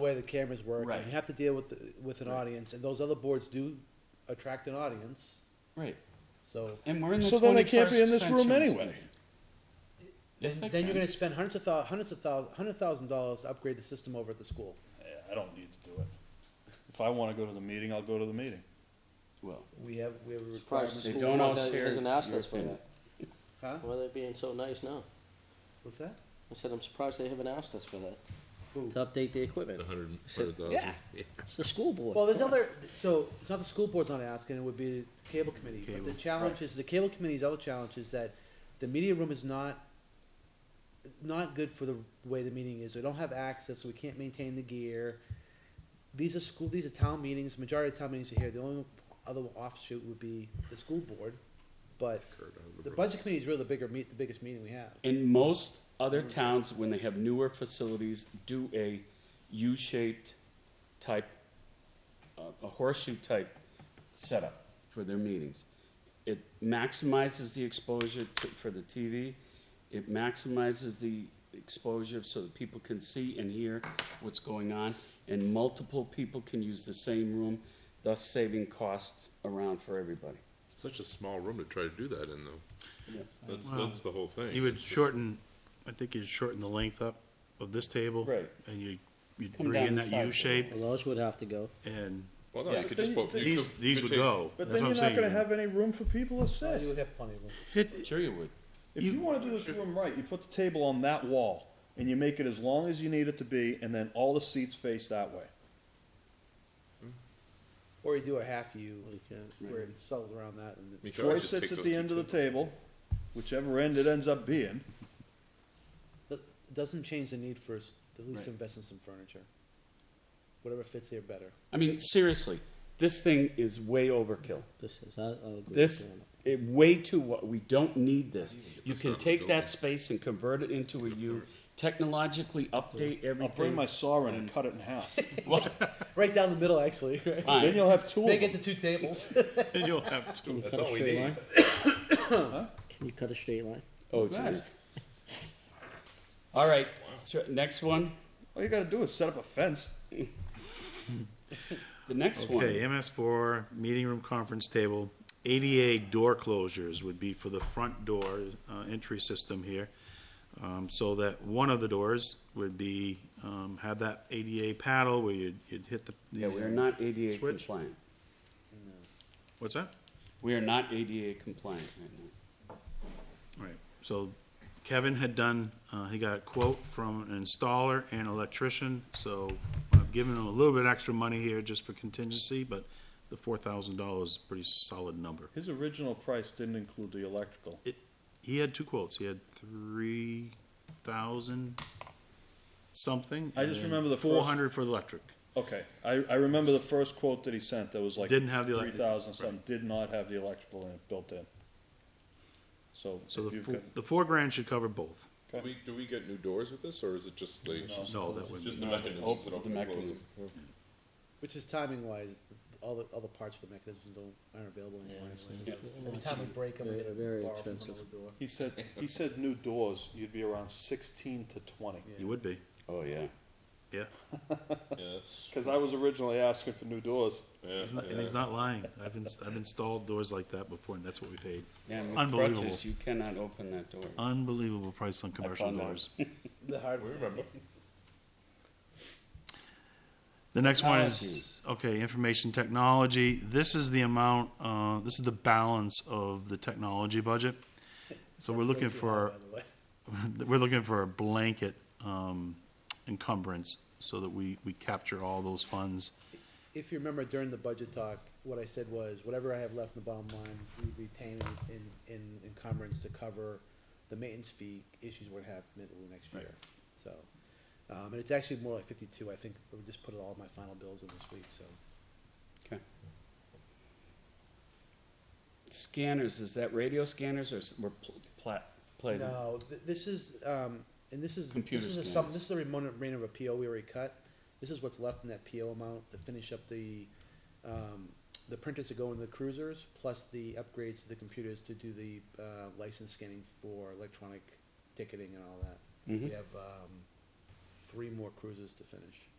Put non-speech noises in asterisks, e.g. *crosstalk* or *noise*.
way the cameras work, and Right. you have to deal with, the- with an Right. audience, and those other boards do attract an audience, Right. so. And we're in the So then they can't be in 21st this room century, anyway. Steve. Yes, Then they then you're can. gonna spend hundreds of thou, hundreds of thou, hundred thousand dollars to upgrade the system over at the school. I don't need to do it. If I wanna go to the meeting, I'll go to the meeting. Well, We have, we have a Surprised the requirement. They school don't board all doesn't- share hasn't asked your us for opinion. that. Huh? Why are they being so nice now? What's that? I said, I'm surprised they haven't asked us for that. Who? To update the equipment. A hundred, So- hundred thousand. yeah. It's the school board. Well, there's other, so, it's not the school board's not asking, it would be the cable committee, but the Cable, challenge is, the cable committee's other challenge is that the media room is not, not good for the way the meeting is, we don't have access, so we can't maintain the gear. These are school, these are town meetings, majority of town meetings are here, the only other offshoot would be the school board, but the budget committee is really the bigger meet, the biggest meeting we have. in most other towns, when they have newer facilities, do a U-shaped type, uh, a horseshoe type setup for their meetings. It maximizes the exposure to, for the TV. It maximizes the exposure so that people can see and hear what's going on, and multiple people can use the same room, thus saving costs around for everybody. Such a small room to try to do that in Yeah. though. That's, Wow. that's the whole thing. You would shorten, I think you'd shorten the length up of this table. Right. And you, you'd Come bring in down the that side. U shape those would have to go. and Well, no, Yeah. you could just, both- you these, could- these could would take- go. But That's then what you're I'm not gonna saying. have any room for people to So You sit. would have plenty of room. It- Sure you would. If you wanna do this room right, you put the table on that wall, and you make it as long as you need it to be, and then all the seats face that way. Or you do a half U, where Right. it settles around that and. I mean, Troy just sits take at those the two end of the tables. table, whichever end it ends up being. That doesn't change the need for us at least to Right. invest in some furniture. Whatever fits here better. I mean, seriously, this thing is way overkill. This is, I, I'll agree This, it, way too, wa- we don't need this. You That's can not a take building. that space and convert it into a U, technologically update I'll bring everything. my saw in and cut it in *laughs* half. Right down the middle, actually. Right? Then Fine. you'll have two of Make it them. to two tables. and you'll have to. That's all we need. *coughs* Can you cut a straight line? Oh, geez. All right, so next one, All you gotta do is set up a fence. the next Okay, one. MS four, meeting room conference table, ADA door closures would be for the front door, uh, entry system here. Um, so that one of the doors would be, um, have that ADA paddle where you'd, you'd hit the. Yeah, we are not ADA Switch. compliant. What's that? We are not ADA compliant right now. Right, so Kevin had done, uh, he got a quote from an installer and electrician, so I've given him a little bit extra money here just for contingency, but the four thousand dollars is a pretty solid number. His original price didn't include the electrical. He had two quotes, he had three thousand something. I just remember the first- Four hundred for the electric, Okay, I, I remember the first quote that he sent that was like Didn't have the three elec- thousand something. Did not have the electrical in it built in. So, so if the you've four, got- the four grand should cover both. Do we, do we get new doors with this, or is it just like? Oh, No, that It's wouldn't. just the mechanisms. Open that the open and close mechanism. Which is timing wise, all the, all the parts for the mechanisms don't, aren't available anymore. anyway. Every time we break them, we Very- gotta very borrow from expensive. another door. he said he said new doors, you'd be around sixteen to twenty. You would be, Oh, yeah. yeah, them. Yeah, *laughs* that's, Because I was originally asking for new doors. yeah, He's not- and yeah. he's not lying, I've ins- I've installed doors like that before, and that's what we paid. Yeah, with Unbelievable. crutches, You cannot open that door. Unbelievable price on commercial found that. doors. The hard We remember. The next one is, okay, information technology. This is the amount, uh, this is the balance of the technology budget. So we're looking for, By the way. *laughs* we're looking for a blanket, um, encumbrance so that we, we capture all those funds. If you remember during the budget talk, what I said was, whatever I have left in the bottom line, we retain in, in encumbrance to cover the maintenance fee issues we're gonna have middle of next year. So, um, and it's actually more like fifty-two, I think, we just put all my final bills in this week, so. Okay. Scanners, is that radio scanners or s- we're pl- pla- plating? No, th- this is, um, and this is, this Computer is a scanners. sum, this is a remnant of a PO we already cut. This is what's left in that PO amount to finish up the, um, the printers that go in the cruisers, plus the upgrades to the computers to do the, uh, license scanning for electronic ticketing and all that. We Mhm. have, um, three more cruisers to finish.